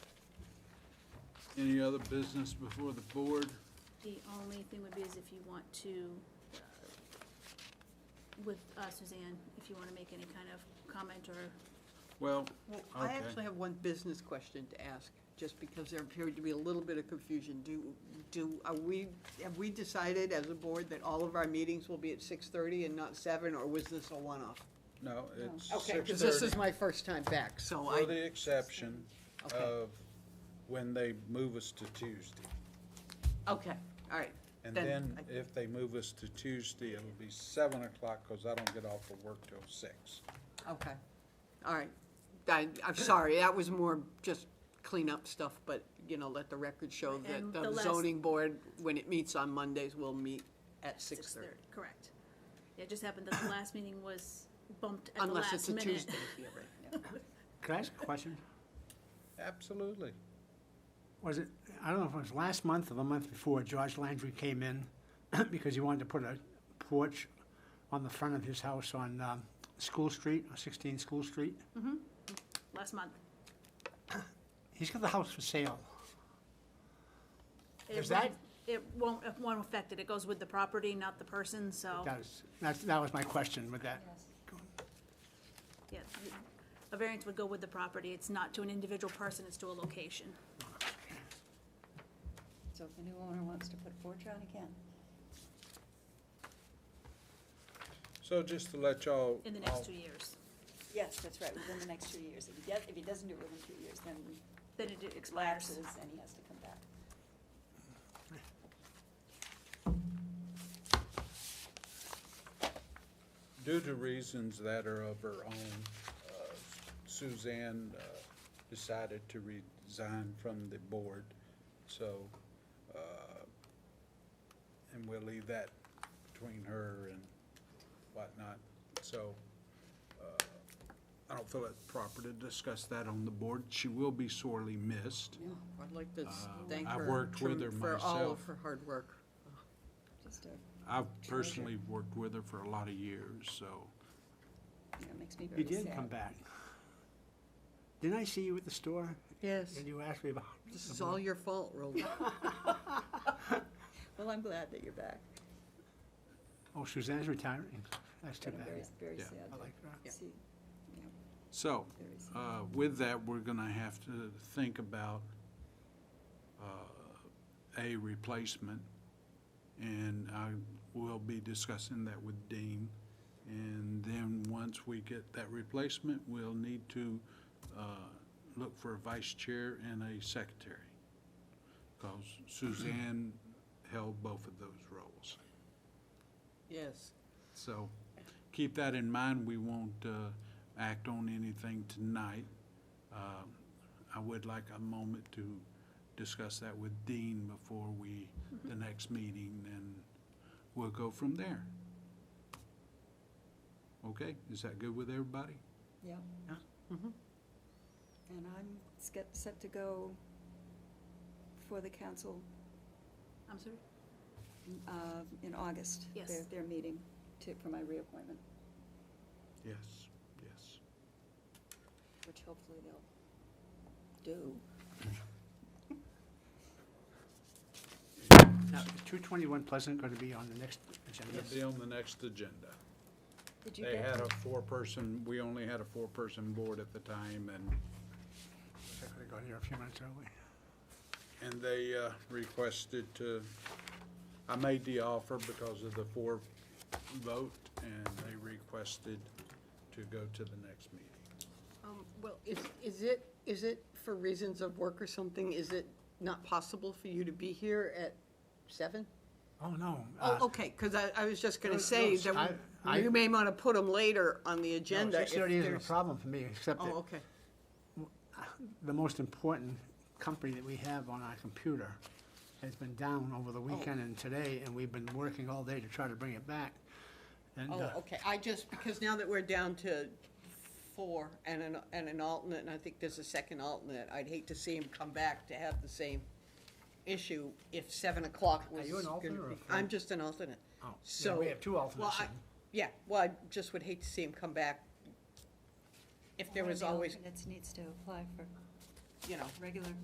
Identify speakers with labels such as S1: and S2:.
S1: Any other business before the board?
S2: The only thing would be is if you want to, uh, with uh, Suzanne, if you want to make any kind of comment or
S1: Well,
S3: Well, I
S1: Okay.
S3: actually have one business question to ask, just because there appeared to be a little bit of confusion. Do, do, are we, have we decided as a board that all of our meetings will be at six-thirty and not seven, or was this a one-off?
S1: no, it's
S3: Okay, because this is
S1: 6:30,
S3: my first time back, so
S1: For
S3: I,
S1: the exception
S3: Okay.
S1: of when they move us to Tuesday.
S3: okay, all right.
S1: And
S3: Then
S1: then
S3: I-
S1: if they move us to Tuesday, it'll be seven o'clock, because I don't get off of work till six.
S3: Okay, all right. I, I'm sorry, that was more just cleanup stuff, but, you know, let the record show that
S2: And the
S3: the
S2: last-
S3: zoning board, when it meets on Mondays, will meet at
S2: six
S3: six-thirty.
S2: thirty, correct. It just happened that the last meeting was bumped at the
S3: Unless
S2: last
S3: it's a
S2: minute.
S3: Tuesday. Yeah, right, yeah.
S4: Could I ask a question?
S1: Absolutely.
S4: Was it, I don't know if it was last month or the month before, George Landry came in because he wanted to put a porch on the front of his house on um, School Street, on 16 School Street.
S2: Last month.
S4: He's got the house for sale.
S2: It
S4: Is that-
S2: won't- It won't, it won't affect it. It goes with the property, not the person,
S3: Oh.
S2: so,
S4: That is, that's, that was my question with that.
S2: yeah. A variance would go with the property. It's not to an individual person, it's to a location.
S5: So if the new owner wants to put a porch on, he can.
S1: So just to let y'all.
S2: In the next
S1: all-
S2: two years.
S5: Yes, that's right, within the next two years. If he does, if he doesn't do it within two years, then
S2: Then it
S5: it
S2: expires.
S5: lapses and he has to come back.
S1: Due to reasons that are of her own, uh, Suzanne uh, decided to resign from the board, so, uh, and we'll leave that between her and whatnot. So uh, I don't feel it's proper to discuss that on the board. She will be sorely missed.
S3: I'd like
S4: Uh,
S3: to s-
S1: Um,
S3: thank
S1: I
S3: her.
S1: worked with her
S3: trem- For all of
S1: myself.
S3: her hard work.
S5: Just, uh, you
S1: I've personally worked with her for a lot of years, so.
S5: know, it makes me
S4: He
S5: very sad.
S4: did come back. Didn't I see you at the store?
S3: Yes.
S4: And you asked me about.
S3: This is all your fault, Roland.
S5: Well, I'm glad that you're back.
S4: Oh, Suzanne's retiring. That's too
S5: But I'm
S4: bad.
S5: very, very
S1: Yeah.
S5: sad.
S4: I like that.
S5: to See, yeah,
S1: So,
S5: very sad.
S1: uh, with that, we're gonna have to think about, uh, a replacement. And I will be discussing that with Dean. And then, once we get that replacement, we'll need to, uh, look for a vice chair and a secretary. Cause Suzanne held both of those roles.
S3: Yes.
S1: So keep that in mind. We won't uh, act on anything tonight. Uh, I would like a moment to discuss that with Dean before we,
S5: Mm-hmm.
S1: the next meeting, and we'll go from there. Okay, is that good with everybody?
S5: Yeah.
S3: Yeah. Mhm.
S5: And I'm set, set to go for the council,
S2: I'm sorry?
S5: uh, in August.
S2: Yes.
S5: Their, their meeting to, for my reappointment,
S1: Yes, yes.
S5: which hopefully they'll do.
S4: Now, is 221 Pleasant going to be on the next agenda?
S1: It'll be on the next agenda.
S5: Did you
S1: They
S5: get,
S1: had a four-person, we only had a four-person board at the time, and
S4: I could have got here a few minutes early.
S1: And they uh, requested to, I made the offer because of the four vote, and they requested to go to the next meeting.
S3: Um, Well, is, is it, is it for reasons of work or something, is it not possible for you to be here at seven?
S4: Oh, no. uh,
S3: Oh, okay, because I, I was just going
S4: No,
S3: to say
S4: no,
S3: that
S4: I-
S3: you may want to put them later on the
S4: No,
S3: agenda. if
S4: 6:30 isn't a
S3: there's-
S4: problem for me, except
S3: Oh,
S4: that
S3: okay.
S4: the most important company that we have on our computer has been down over the
S3: Oh.
S4: weekend and today, and we've been working all day to try to bring it back. And,
S3: Oh,
S4: uh,
S3: okay, I just, because now that we're down to four and an, and an alternate, and I think there's a second alternate, I'd hate to see him come back to have the same issue if seven o'clock was.
S4: you an
S3: gonna
S4: alternate or a
S3: be-
S4: full?
S3: I'm just an alternate.
S4: Oh, yeah,
S3: So-
S4: we have two
S3: well,
S4: alternates
S3: I-
S4: then.
S3: Yeah, well, I just would hate to see him come back if there
S5: One of
S3: was
S5: the
S3: always,
S5: alternates needs to apply for
S3: you know,
S5: regular